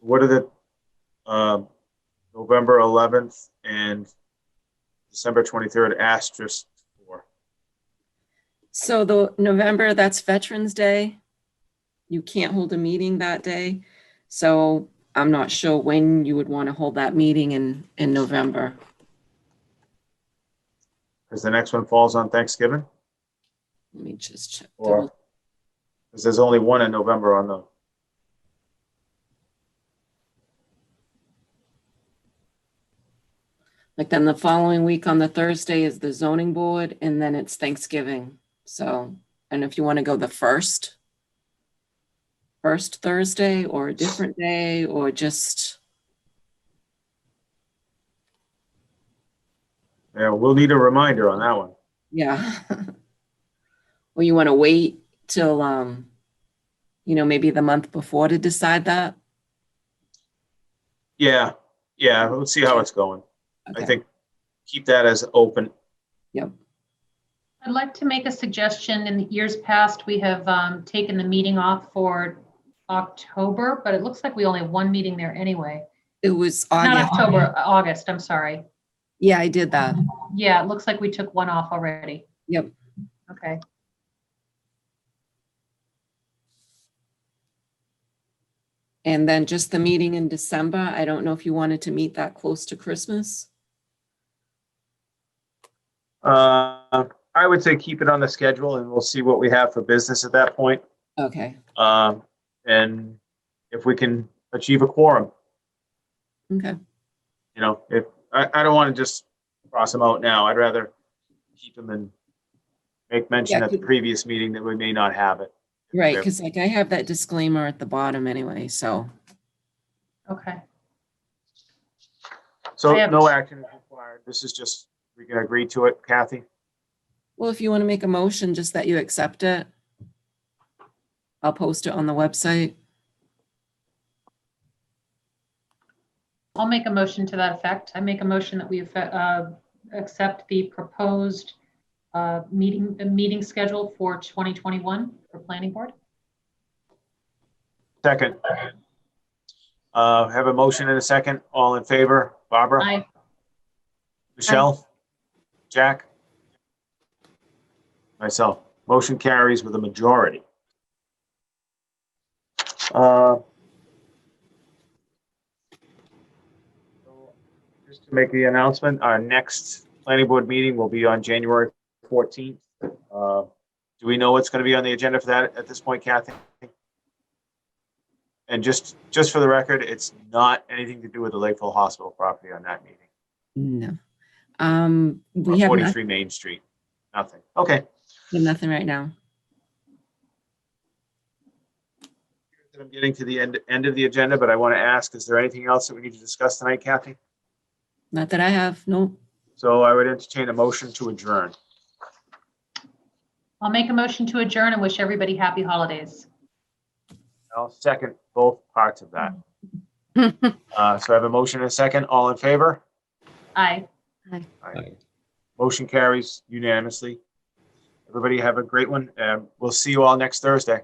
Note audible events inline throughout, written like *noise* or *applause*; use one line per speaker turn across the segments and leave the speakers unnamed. what are the, um, November eleventh and December twenty-third asterisk for?
So the November, that's Veterans Day. You can't hold a meeting that day. So I'm not sure when you would want to hold that meeting in, in November.
Because the next one falls on Thanksgiving,
Let me just check.
Or-
double-
because there's only one in November on the,
Like then the following week on the Thursday is the zoning board and then it's Thanksgiving. So, and if you want to go the first, first Thursday or a different day or just,
yeah, we'll need a reminder on that one.
yeah. *laughs* Or you want to wait till, um, you know, maybe the month before to decide that?
Yeah, yeah, let's see how it's going. I
Okay.
think, keep that as open.
I'd like to make a suggestion. In the years past, we have um, taken the meeting off for October, but it looks like we only have one meeting there anyway.
It was
Not
August.
October, uh, August, I'm sorry.
Yeah, I did that.
Yeah, it looks like we took one off already.
Yep.
Okay,
And then just the meeting in December. I don't know if you wanted to meet that close to Christmas.
Uh, I would say keep it on the schedule and we'll see what we have for business at that point.
Okay,
Um, and if we can achieve a quorum,
okay,
you know, if, I, I don't want to just cross them out now. I'd rather keep them and make mention
Yeah,
at the
keep-
previous meeting that we may not have it.
right,
Yeah.
because like I have that disclaimer at the bottom anyway, so,
okay.
So
I have-
no action is required. This is just, we can agree to it, Kathy.
well, if you want to make a motion, just that you accept it. I'll post it on the website.
I'll make a motion to that effect. I make a motion that we uh, accept the proposed uh, meeting, the meeting schedule for 2021 for planning board.
Second. Uh, have a motion and a second. All in favor? Barbara?
I,
Michelle? Jack? Myself. Motion carries with a majority. Uh, Just to make the announcement, our next planning board meeting will be on January 14th. Uh, Do we know what's going to be on the agenda for that at this point, Kathy? And just, just for the record, it's not anything to do with the Lakeville Hospital property on that meeting
No. Um,
or
we have noth-
43 Main Street. Nothing. Okay.
nothing right now.
I'm getting to the end, end of the agenda, but I want to ask, is there anything else that we need to discuss tonight, Kathy?
Not that I have, no.
So I would entertain a motion to adjourn.
I'll make a motion to adjourn and wish everybody happy holidays.
I'll second both parts of
*laughs*
that. Uh, So I have a motion and a second. All in favor?
Aye.
Motion carries unanimously. Everybody have a great one. and We'll see you all next Thursday.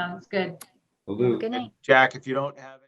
sounds good.
Salute.
Good night.
Jack, if you don't have.